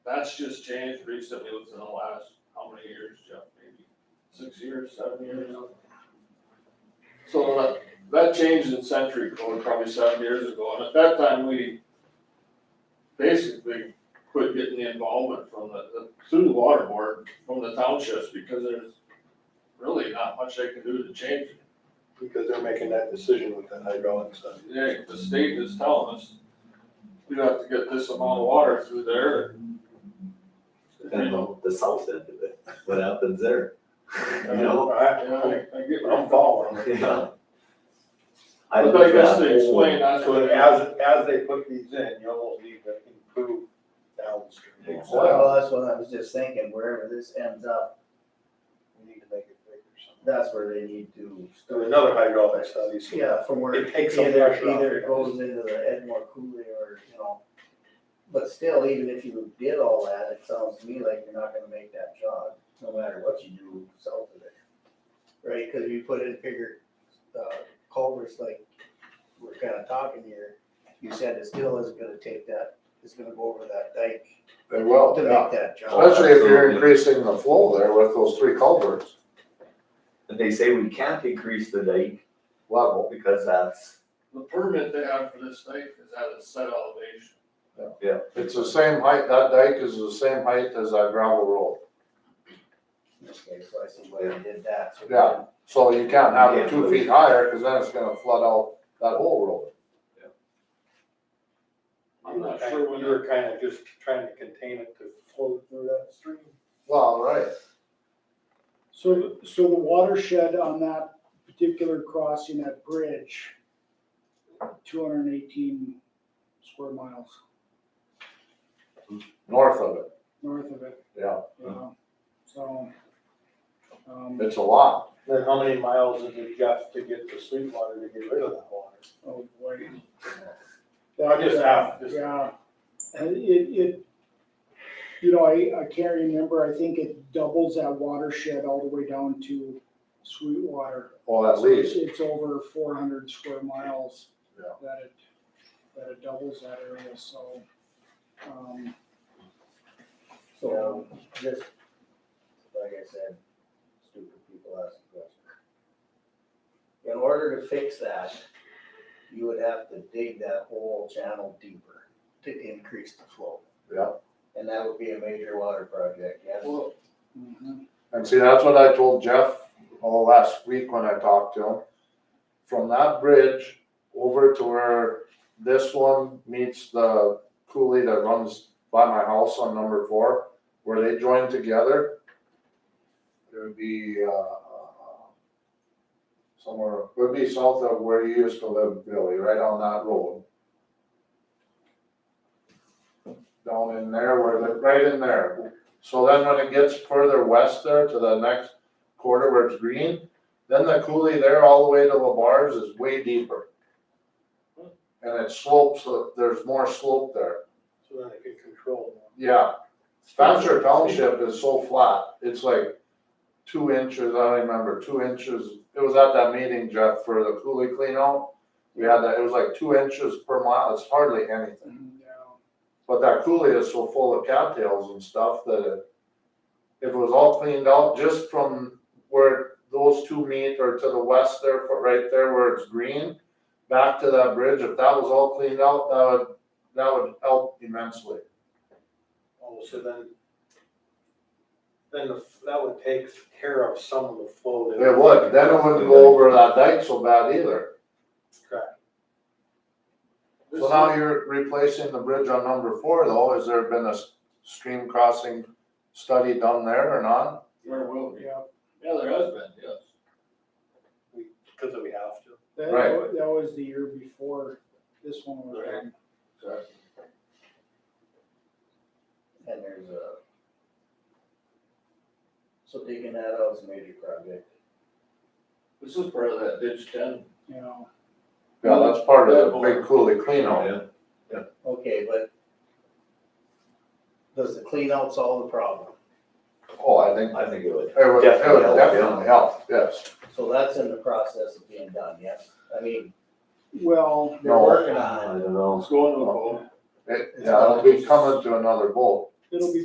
That's just changed recently within the last, how many years, Jeff, maybe six years, seven years? So that, that changed in century code probably seven years ago, and at that time, we basically quit getting the involvement from the, the- through the water board, from the townships, because there's really not much they can do to change it. because they're making that decision with that hydraulic stuff. Yeah, the state is telling us, we have to get this amount of water through there. And the, the south end of it, what happens there? You know? I, I get what I'm I'm following. following. Yeah. I But I guess they explain that's So what as, as they put these in, you almost need to improve downstream. Well, that's what I was just thinking, wherever this ends up, We need to make it bigger somehow. that's where they need to. So another hydraulic study, so. Yeah, from where It either, takes some pressure off. either it goes into the Edmore Cooley or, you know. But still, even if you did all that, it sounds to me like you're not gonna make that jog, no matter what you do south of it. Right, cause you put in bigger, uh, culverts like we're kinda talking here, you said it still isn't gonna take that, it's gonna go over that dike They to will, yeah. make that jog. Especially if you're Absolutely. increasing the flow there with those three culverts And they say we can't increase the dike level. because that's, The permit they have for this thing is at a set elevation. It's the same height, that dike is the same height as that gravel road. Okay, so I see why you did that, so. Yeah. So you can't have it Yeah. two feet higher, cause then it's gonna flood out that whole road. I'm not sure when You were kind of just trying to contain it to flow through that stream. Well, right. So, so the watershed on that particular crossing, that bridge, two hundred and eighteen square miles north of it, north of it, yeah. you know, so. Um, It's a lot. Then how many miles does it got to get the sweet water to get rid of that water? oh boy. I just asked, just- Yeah, and it, it, you know, I, I can't remember, I think it doubles that watershed all the way down to Sweetwater. Well, at least, It's over four hundred square miles. Yeah. That it, that it doubles that area, so, um, So, just, like I said, stupid people ask questions. In order to fix that, you would have to dig that whole channel deeper to increase the flow. Yeah. And that would be a major water project, yes. Well, mhm, and see, that's what I told Jeff all last week when I talked to him. From that bridge over to where this one meets the coulee that runs by my house on number four, where they join together. It would be, uh, somewhere, would be south of where you used to live, Billy, right on that road. Down in there, where the, right in there. So then when it gets further west there to the next quarter where it's green, then the coulee there all the way to Labar's is way deeper. And it slopes, uh, there's more slope there. so that it could control more. Yeah, Spencer Township is so flat, it's like two inches, I don't remember, two inches, it was at that meeting, Jeff, for the Cooley cleanout. We had that, it was like two inches per mile, it's hardly anything, yeah. but that Cooley is so full of cattails and stuff that it- if it was all cleaned out just from where those two meet or to the west there, for- right there where it's green, back to that bridge, if that was all cleaned out, that would, that would help immensely. Oh, so then, then the, that would take care of some of the flow. that- It would, then it wouldn't go over that dike so bad either. Correct. So now you're replacing the bridge on number four though, has there been a s- stream crossing study done there or not? Where will we? Yeah, Yeah, there has been, yes. Because we have to. that, Right. wa- that was the year before this one was Right. done. And there's a. So digging that out is a major project. This is part of that ditch ten. you know, Yeah, that's part of the big Cooley cleanout. Okay, but does the clean out solve the problem? Oh, I think, I think it would. it would, it Definitely help, would yeah. definitely help, yes. So that's in the process of being done, yes? I mean, well, they're No. working on I it. don't know. It's going to the pole. It, yeah, it'll be coming to another vote. it'll be